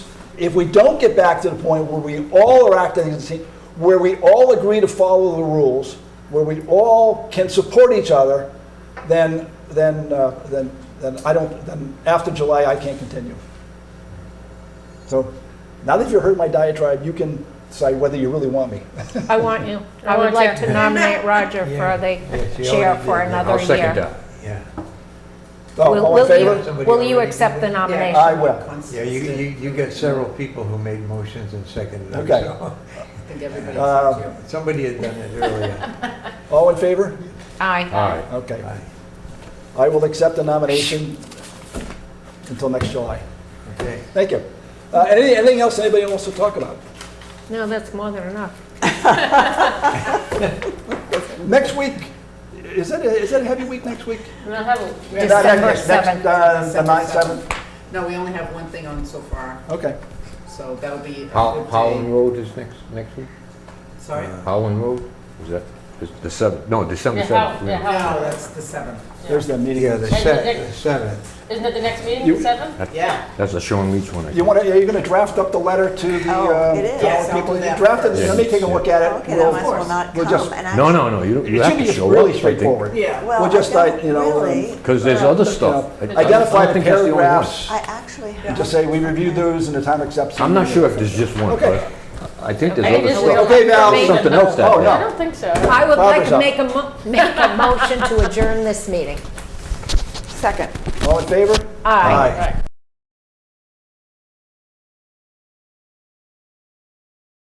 if we don't get back to the point where we all are acting as a team, where we all agree to follow the rules, where we all can support each other, then, then, uh, then, then I don't, then after July, I can't continue. So now that you've heard my diatribe, you can decide whether you really want me. I want you. I I would want like you. to nominate Roger Yeah. for Yeah, the she chair already for did that. another I'll year. second that. Yeah, Oh, All Will- all in will you- favor? Somebody Will you already accept the did that? nomination? I will. yeah, you, you, you got several people who made motions and seconded them, Okay. so. I think everybody Uh, accepts you. Somebody had done it earlier. All in favor? Aye. All right. Okay. Right, I will accept the nomination until next July. Okay. Thank you. Uh, anything, anything else anybody wants to talk about? No, that's more than enough. Next week, is that, a- is that a heavy week next week? We'll have a- we have- Not heavy, December next- next, 7th. uh, The December ninth, seventh? No, we only have one thing on so far, Okay. so that'll be a How, Uh, good Howland day. Road is next, next week? Sorry? Howland Road? Is that, is the seventh, no, December Yeah, how- seventh. yeah, how- No, that's the seventh. There's the meeting. Yeah, the And the se- next- the seventh, Isn't it the next meeting, You- the seventh? Yeah. That's a Sean Leach one, I You think. want to, are you going to draft up the letter to the, Oh, uh, it is. to all Yes, the I'll people? do You that. draft it, Yeah. let me take a look at it. Oh, Okay, We'll- that might as well not we'll come. just- and No, actually- no, no, you don't, you It have should to be show up. really straightforward. Yeah. We'll Well, just I like, don't you know, um, really. Because there's other You know, stuff. I- I don't Identify the think that's only one. paragraphs, I actually have. just say, we reviewed those and the town accepts. I'm not sure if there's just one, Okay. but I think there's Okay, other just- stuff. Okay, Val. Maybe Something else that Oh, day. I no. don't think so. I would like Barbara's up. to make a, mo- make a motion to adjourn this meeting. Second. All in favor? Aye. Right.